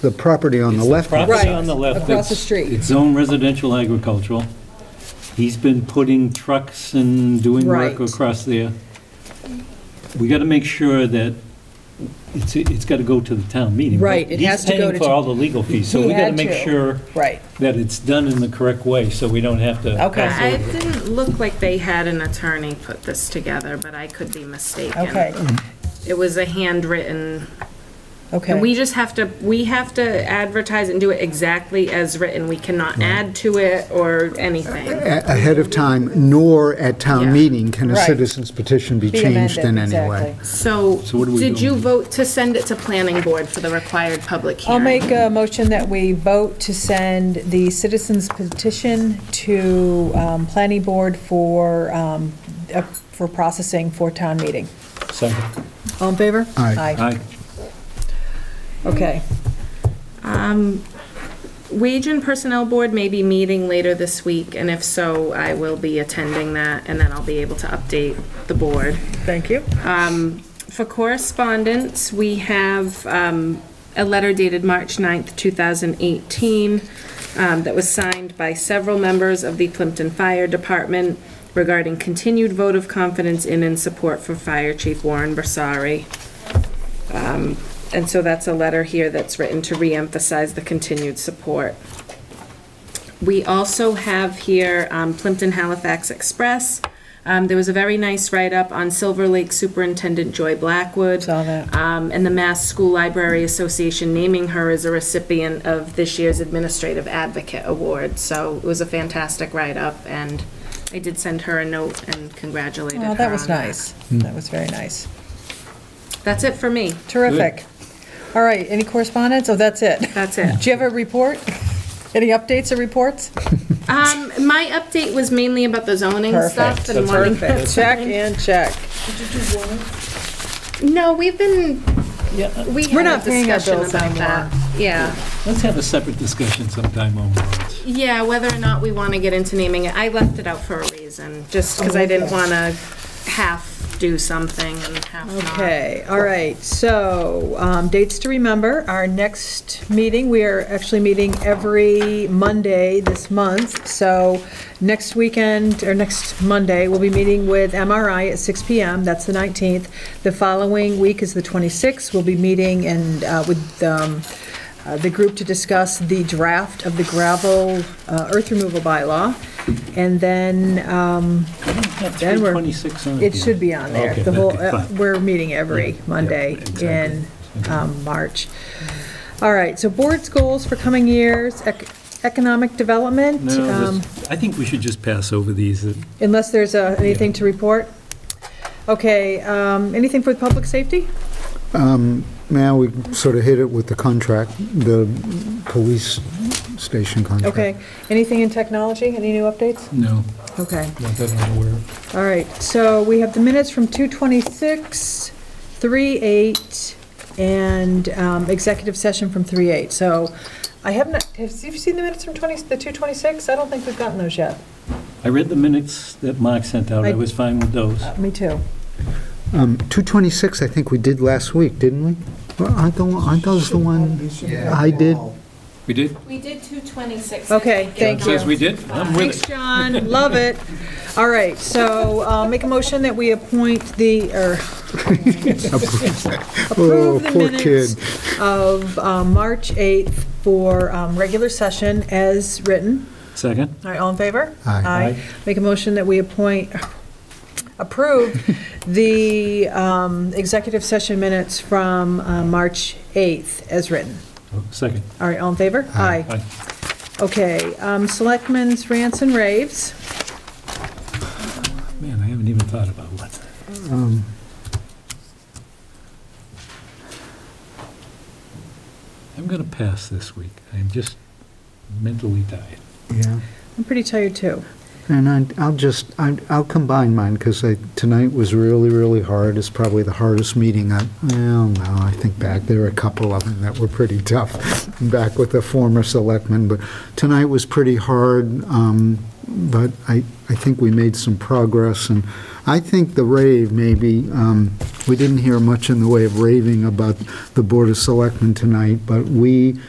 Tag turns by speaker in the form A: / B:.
A: the property on the left. hand
B: Property
A: side.
B: on the left.
C: across the
B: that's-
C: street.
B: It's zone residential agricultural. He's been putting trucks and doing work
C: Right.
B: across there. We gotta make sure that it's, it's gotta go to the town meeting. but
C: Right, it has to go
B: He's
C: to
B: paying for
C: t-
B: all the legal fees, so
C: He
B: we gotta
C: had
B: make
C: to.
B: sure
C: Right.
B: that it's done in the correct way, so we don't have to.
C: Okay.
B: pass
D: I-
B: over.
D: It didn't look like they had an attorney put this together, but I could be mistaken.
C: Okay,
D: It was a handwritten,
C: okay.
D: and we just have to, we have to advertise and do it exactly as written. We cannot add to it or anything.
A: A- Ahead of time, nor at town
D: Yeah.
A: meeting can a
C: Right.
A: citizen's petition be
C: Be
A: changed in
C: amended,
A: any way.
C: exactly.
D: So,
B: So what do we
D: did
B: do?
D: you vote to send it to planning board for the required public hearing?
C: I'll make a motion that we vote to send the citizens petition to um, planning board for, um, uh, for processing for town meeting.
B: Second.
C: All in favor?
A: Aye.
B: Aye.
C: Okay,
D: Um, Wage and Personnel Board may be meeting later this week, and if so, I will be attending that, and then I'll be able to update the board.
C: thank you.
D: For correspondence, we have um, a letter dated March 9th, 2018, um, that was signed by several members of the Plimpton Fire Department regarding continued vote of confidence in and support for Fire Chief Warren Bersari. Um, And so that's a letter here that's written to reemphasize the continued support. We also have here um, Plimpton Halifax Express. Um, There was a very nice write-up on Silver Lake Superintendent Joy Blackwood.
C: Saw that.
D: Um, And the Mass School Library Association naming her as a recipient of this year's Administrative Advocate Award. So it was a fantastic write-up, and I did send her a note and congratulated her
C: Oh, that was
D: on
C: nice.
A: Hmm.
C: That was very nice.
D: That's it for me.
C: Terrific. All right, any correspondence? Oh, that's it.
D: That's it.
C: Do you have a report? Any updates or reports?
D: Um, My update was mainly about the zoning stuff.
C: Perfect.
D: and wanting-
C: Check and check.
D: No, we've been, we
C: We're
D: had a
C: not paying our
D: discussion
C: bills
D: about
C: anymore.
D: that. Yeah,
B: Let's have a separate discussion sometime on warrants.
D: yeah, whether or not we want to get into naming it. I left it out for a reason, just
C: Oh,
D: because I didn't want to half do something and half not.
C: Okay, all right, so, um, dates to remember, our next meeting, we are actually meeting every Monday this month, so next weekend, or next Monday, we'll be meeting with MRI at 6 PM, that's the 19th. The following week is the 26th, we'll be meeting and, uh, with, um, uh, the group to discuss the draft of the gravel, uh, earth removal bylaw. And then, um,
B: I didn't have
C: Then we're-
B: 326 on
C: it
B: here.
C: should be on there.
B: Okay,
C: The whole,
B: okay,
C: uh,
B: fine.
C: we're meeting every
B: Yeah, yeah,
C: Monday
B: exactly.
C: in um, March. All right, so board's goals for coming years, ec- economic development,
B: No,
C: um,
B: this- I think we should just pass over these. uh,
C: unless there's uh, anything to report. Okay, um, anything for public safety?
A: Um, Now, we sort of hit it with the contract, the police station contract.
C: Okay, anything in technology, any new updates?
B: No,
C: Okay.
B: not that I'm aware of.
C: All right, so we have the minutes from 2:26, 3:08, and um, executive session from 3:08. So I have not, have you seen the minutes from 20, the 2:26? I don't think we've gotten those yet.
B: I read the minutes that Mark sent out. I
C: I-
B: was fine with those.
C: Uh, Me too.
A: Um, 226, I think we did last week, didn't we? Well, Aren't the one- aren't those the one I did?
B: We did?
D: We did 226.
C: Okay, thank you.
B: Says we did?
D: Um,
B: I'm with
C: Thanks,
B: it.
C: John, love it. All right, so uh, make a motion that we appoint the, or approve the
A: Oh, poor
C: minutes of uh, March 8th for um, regular session as written.
B: Second?
C: All right, all in favor?
A: Aye.
B: Aye.
C: Make a motion that we appoint, approve the um, executive session minutes from uh, March 8th as written.
B: Oh, Second.
C: All right, all in favor? Aye.
B: Aye.
C: Okay, um, selectmen's rants and raves.
B: Man, I haven't even thought about one. Um, I'm going to pass this week. I'm just mentally tired.
A: Yeah.
C: I'm pretty tired, too.
A: And I- I'll just, I- I'll combine mine, because tonight was really, really hard. It's probably the hardest meeting I, well, no, I think back, there were a couple of them that were pretty tough, back with the former selectmen, but tonight was pretty hard. Um, but I, I think we made some progress, and I think the rave maybe, um, we didn't hear much in the way of raving about the Board of Selectmen tonight, but we